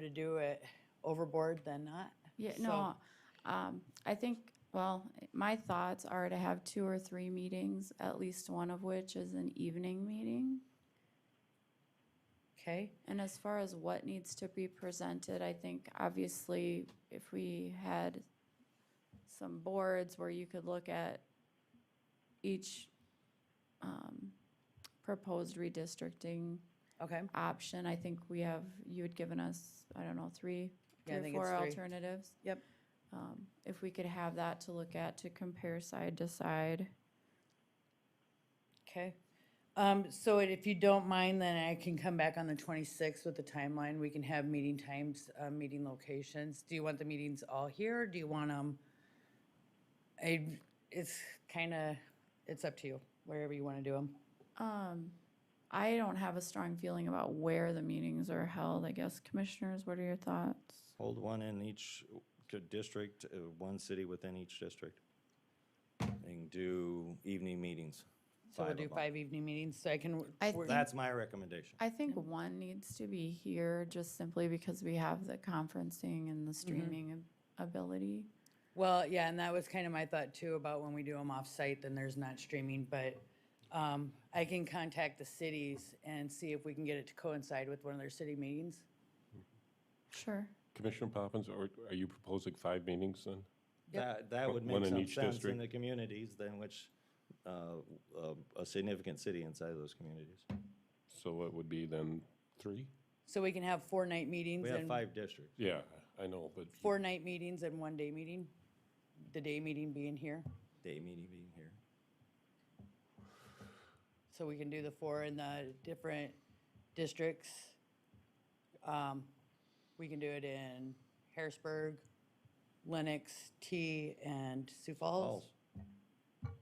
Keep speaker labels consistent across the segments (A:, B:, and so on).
A: to do it overboard than not.
B: Yeah,
A: So-
B: no, um, I think, well, my thoughts are to have two or three meetings, at least one of which is an evening meeting.
A: Okay,
B: And as far as what needs to be presented, I think obviously if we had some boards where you could look at each um, proposed redistricting
A: okay.
B: option, I think we have, you had given us, I don't know, three,
A: Yeah, I
B: three or
A: think it's
B: four
A: three.
B: alternatives.
A: Yep.
B: Um, If we could have that to look at, to compare side to side.
A: Okay. Um, so it- if you don't mind, then I can come back on the twenty-sixth with the timeline. We can have meeting times, uh, meeting locations. Do you want the meetings all here? or Do you want them? I, it's kinda, it's up to you, wherever you wanna do them.
B: Um, I don't have a strong feeling about where the meetings are held, I guess. Commissioners, what are your thoughts?
C: Hold one in each c- district, uh, one city within each district. And do evening meetings.
A: So we'll
C: of
A: do
C: 'em.
A: five evening meetings, so I can.
B: I
A: work-
C: That's my recommendation.
B: I think one needs to be here just simply because we have the conferencing and the streaming ab- ability.
A: Well, yeah, and that was kind of my thought too about when we do them off-site, then there's not streaming, but um, I can contact the cities and see if we can get it to coincide with one of their city meetings.
B: Sure.
D: Commissioner Poppins, or are you proposing five meetings then?
C: That, that would
D: One
C: make
D: in
C: some
D: each
C: sense in
D: district.
C: the communities than which, uh, uh, a significant city inside of those communities.
D: So it would be then three?
A: So we can have four-night meetings
C: We have
A: and,
C: five districts.
D: Yeah, I know, but
A: four-night meetings and one-day meeting, the day meeting being here.
C: Day meeting being here.
A: So we can do the four in the different districts. Um, We can do it in Harrisburg, Lenox, T, and Sioux Falls.
C: Falls.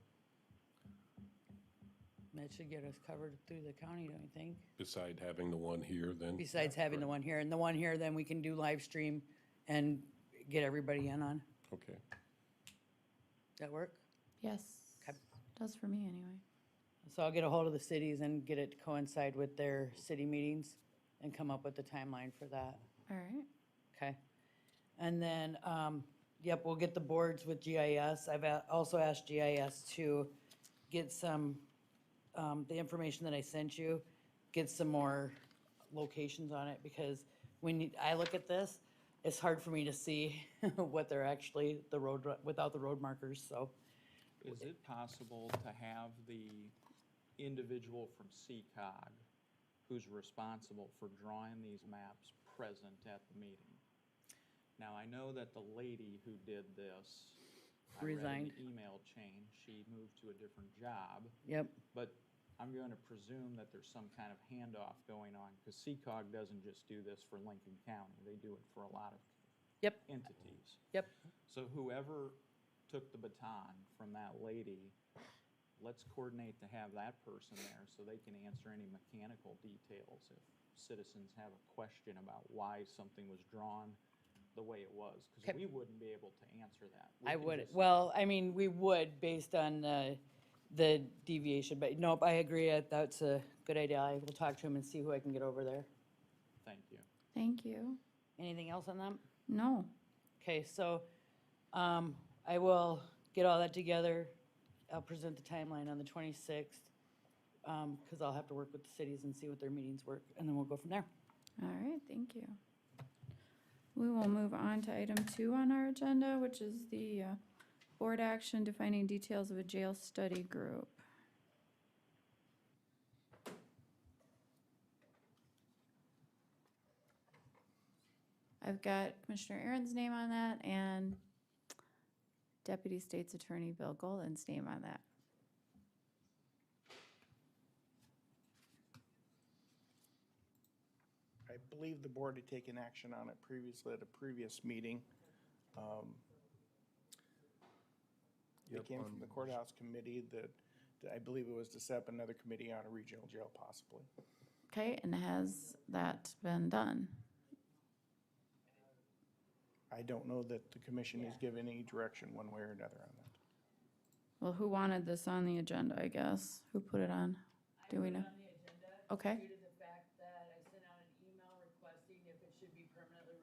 A: That should get us covered through the county, don't you think?
D: beside having the one here, then?
A: Besides having the one here, and the one here, then we can do live stream and get everybody in on.
D: Okay.
A: That work?
B: Yes. Does for me anyway.
A: So I'll get a hold of the cities and get it to coincide with their city meetings and come up with the timeline for that.
B: All right.
A: Okay. And then, um, yep, we'll get the boards with GIS. I've a- also asked GIS to get some, um, the information that I sent you, get some more locations on it, because when you- I look at this, it's hard for me to see what they're actually, the road, without the road markers, so.
E: Is it possible to have the individual from CCOG who's responsible for drawing these maps present at the meeting? Now, I know that the lady who did this, I read in
A: Resigned.
E: the email chain, she moved to a different job,
A: Yep,
E: but I'm going to presume that there's some kind of handoff going on, because CCOG doesn't just do this for Lincoln County, they do it for a lot of
A: yep,
E: entities.
A: yep,
E: So whoever took the baton from that lady, let's coordinate to have that person there so they can answer any mechanical details if citizens have a question about why something was drawn the way it was, because
A: Okay.
E: we wouldn't be able to answer that. We
A: I
E: can
A: would,
E: just-
A: well, I mean, we would based on the, the deviation, but nope, I agree, I- that's a good idea. I will talk to him and see who I can get over there.
E: Thank you.
B: Thank you.
A: Anything else on them?
B: No.
A: Okay, so, um, I will get all that together. I'll present the timeline on the twenty-sixth, um, cause I'll have to work with the cities and see what their meetings work, and then we'll go from there.
B: All right, thank you. We will move on to item two on our agenda, which is the uh, board action defining details of a jail study group. I've got Commissioner Aaron's name on that and Deputy State's Attorney Bill Golden's name on that.
F: I believe the board had taken action on it previously at a previous meeting. Um, It came from the courthouse committee that, that I believe it was to set up another committee on a regional jail possibly.
B: Okay, and has that been done?
F: I don't know that the commission has given any direction one way or another on that.
B: Well, who wanted this on the agenda, I guess? Who put it on? Do we know? Okay.